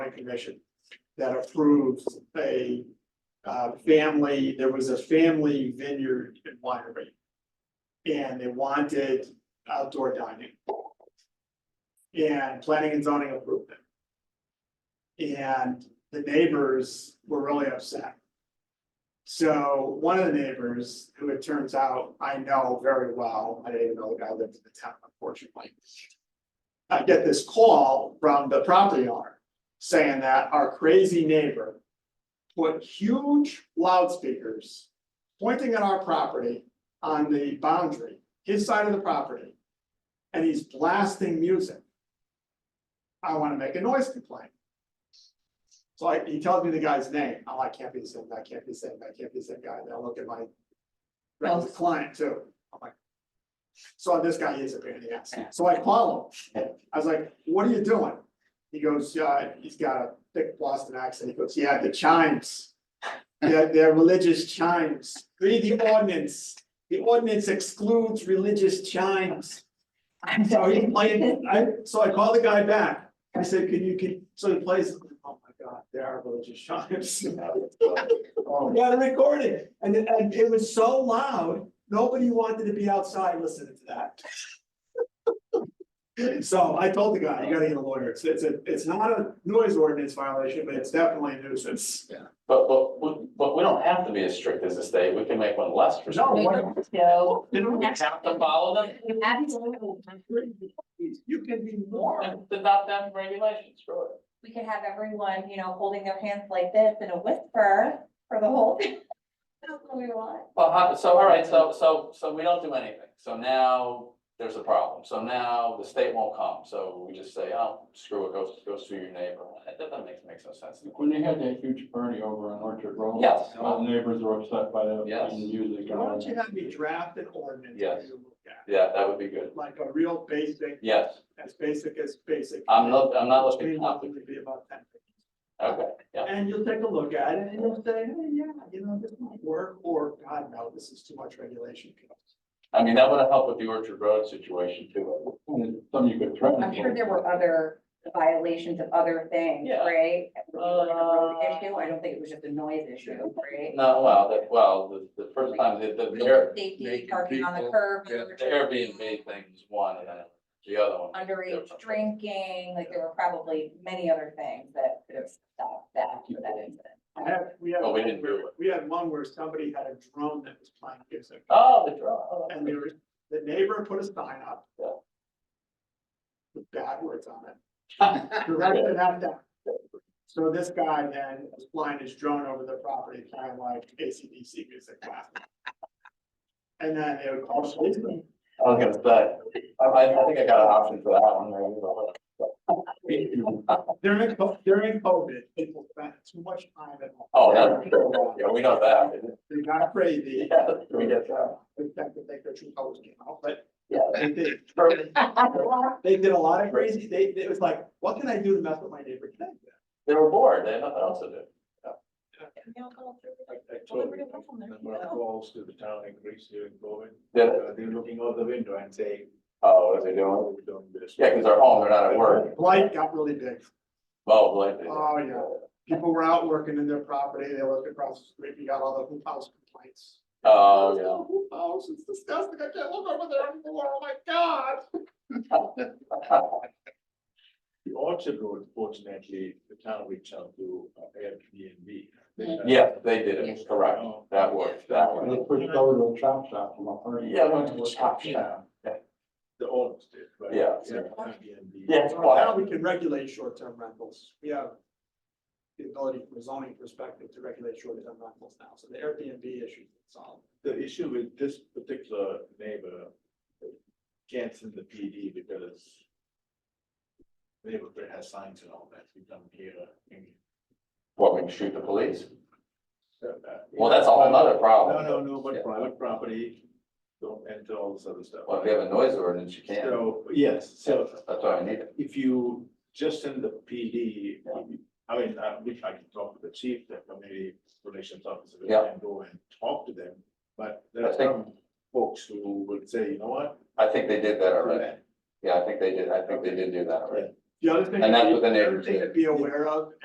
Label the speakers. Speaker 1: planning commission that approves a uh, family, there was a family vineyard and winery. And they wanted outdoor dining. And planning and zoning approved it. And the neighbors were really upset. So one of the neighbors, who it turns out I know very well, I didn't even know the guy lived in the town unfortunately. I get this call from the property owner saying that our crazy neighbor. Put huge loudspeakers pointing at our property on the boundary, his side of the property. And he's blasting music. I wanna make a noise complaint. So I, he tells me the guy's name, I'm like, can't be the same, that can't be the same, that can't be the same guy, then I look at my.
Speaker 2: Well-
Speaker 1: client too, I'm like. So this guy is a pain in the ass, so I call him, I was like, what are you doing? He goes, yeah, he's got a thick Boston accent, he goes, yeah, the chimes. Yeah, they're religious chimes, read the ordinance, the ordinance excludes religious chimes. So he played, I, so I called the guy back, I said, can you, can, so he plays, oh my god, there are religious chimes. Oh. We Got a recording, and it, and it was so loud, nobody wanted to be outside listening to that. So I told the guy, you gotta get a lawyer, it's, it's a, it's not a noise ordinance violation, but it's definitely a nuisance.
Speaker 3: But, but, we- but we don't have to be as strict as the state, we can make one less for
Speaker 1: No,
Speaker 3: some.
Speaker 1: what-
Speaker 2: So.
Speaker 3: Didn't we have to follow them?
Speaker 1: you can be more,
Speaker 3: Then Adopt them regulations, sure.
Speaker 2: We could have everyone, you know, holding their hands like this in a whisper for the whole. That's what we want.
Speaker 3: Well, how- so, all right, so, so, so we don't do anything, so now there's a problem, so now the state won't come, so we just say, oh, screw it, go, go sue your neighbor. That doesn't make, makes no sense.
Speaker 4: When they had that huge party over on Orchard Road.
Speaker 3: Yes.
Speaker 4: All the neighbors were upset by that.
Speaker 3: Yes.
Speaker 4: Music. and
Speaker 1: why
Speaker 4: all
Speaker 1: don't you
Speaker 4: that.
Speaker 1: have me draft an ordinance? for
Speaker 3: Yes.
Speaker 1: you to look at?
Speaker 3: Yeah, that would be good,
Speaker 1: Like a real basic
Speaker 3: yes,
Speaker 1: as basic as basic.
Speaker 3: I'm not, I'm not looking,
Speaker 1: Maybe
Speaker 3: okay,
Speaker 1: it'll be about 10.
Speaker 3: yeah.
Speaker 1: And you'll take a look at it and you'll say, hey, yeah, you know, this might work, or God, no, this is too much regulation.
Speaker 3: I mean, that would help with the Orchard Road situation too.
Speaker 4: And Some you could threaten.
Speaker 2: I'm sure there were other violations of other things,
Speaker 3: Yeah.
Speaker 2: right? We were in a road
Speaker 3: Uh,
Speaker 2: Issue, I don't think it was just a noise issue, right?
Speaker 3: No, well, that, well, the, the first time, the, the- the air-
Speaker 2: Safety,
Speaker 3: making
Speaker 2: parking on the
Speaker 3: people-
Speaker 2: curb.
Speaker 3: Yeah, The Airbnb thing was one, and then the other one. was
Speaker 2: Underage
Speaker 3: different.
Speaker 2: drinking, like there were probably many other things that could have stopped that for that incident.
Speaker 1: I have, we had,
Speaker 3: Well, Oh, we
Speaker 1: one
Speaker 3: didn't do
Speaker 1: where- we had one where somebody had a drone that was playing music.
Speaker 3: Oh, the draw. oh,
Speaker 1: And they were, the neighbor put a sign up.
Speaker 3: Yeah.
Speaker 1: With bad words on it.
Speaker 3: that's-
Speaker 1: Direct it at them. So this guy then was flying his drone over the property, kind of like ACDC music. blasting. And then they would call the policeman.
Speaker 3: I was gonna say, I, I think I got an option for that one, maybe, but-
Speaker 1: During, co- during COVID, people spent too much time at home.
Speaker 3: Oh, that's true. Yeah, we know that.
Speaker 1: They got crazy.
Speaker 3: Yeah, we get that.
Speaker 1: In fact, they think their true colors came out, but
Speaker 3: Yeah.
Speaker 1: they did. They did a lot of crazy, they, it was like, what can I do to mess with my neighbor today?
Speaker 3: They were bored, they had nothing else to do.
Speaker 5: I
Speaker 2: Well,
Speaker 5: told
Speaker 2: we're
Speaker 5: them,
Speaker 2: gonna go from there,
Speaker 5: that when
Speaker 2: you
Speaker 5: I
Speaker 2: know.
Speaker 5: calls to the town increase here in Bowen,
Speaker 3: Yeah,
Speaker 5: uh, they're looking out the window and say,
Speaker 3: oh, what are they doing?
Speaker 5: oh, we're doing this.
Speaker 3: Yeah, because they're home, they're not at work.
Speaker 1: Blight got really big.
Speaker 3: Oh, boy. they-
Speaker 1: Oh, yeah. People were out working in their property, they looked across the street, you got all the hoop house complaints.
Speaker 3: Oh, yeah.
Speaker 1: Hoop house, it's disgusting, I can't look over there anymore, oh my god.
Speaker 5: The Orchard Road, fortunately, the town reached out to uh, Airbnb. They, uh,
Speaker 3: Yeah, they did it, correct.
Speaker 5: oh,
Speaker 3: That worked, that
Speaker 4: And They
Speaker 3: one.
Speaker 4: pushed over to a chop shop from a party.
Speaker 3: Yeah, went to a chop shop.
Speaker 5: The owners did, right?
Speaker 3: Yeah.
Speaker 5: Airbnb.
Speaker 3: Yeah, it's
Speaker 1: Well, Now
Speaker 3: quiet.
Speaker 1: we can regulate short-term rentals. We have the ability from a zoning perspective to regulate short-term rentals now, so the Airbnb issue is solved.
Speaker 5: The issue with this particular neighbor, uh, can't send the PD because neighborhood has signs and all that, we come here. and,
Speaker 3: What, we can shoot the police?
Speaker 5: uh,
Speaker 3: Well, that's a whole nother
Speaker 5: No,
Speaker 3: problem.
Speaker 5: no, no,
Speaker 3: Yeah.
Speaker 5: but private property, don't enter all this other stuff.
Speaker 3: Well, if you have a noise ordinance, you can't.
Speaker 5: So, yes, so
Speaker 3: That's why I need it.
Speaker 5: if you just send the PD, I mean, I wish I could talk to the chief, the community relations officer, we
Speaker 3: Yeah.
Speaker 5: can go and talk to them. But there
Speaker 3: I
Speaker 5: are
Speaker 3: think-
Speaker 5: some folks who would say, you know what?
Speaker 3: I think they did that already. Yeah, I think they did, I think they did do that already.
Speaker 1: The other thing.
Speaker 3: And that's what the
Speaker 1: other
Speaker 3: neighbors
Speaker 1: thing to
Speaker 3: did.
Speaker 1: Be aware of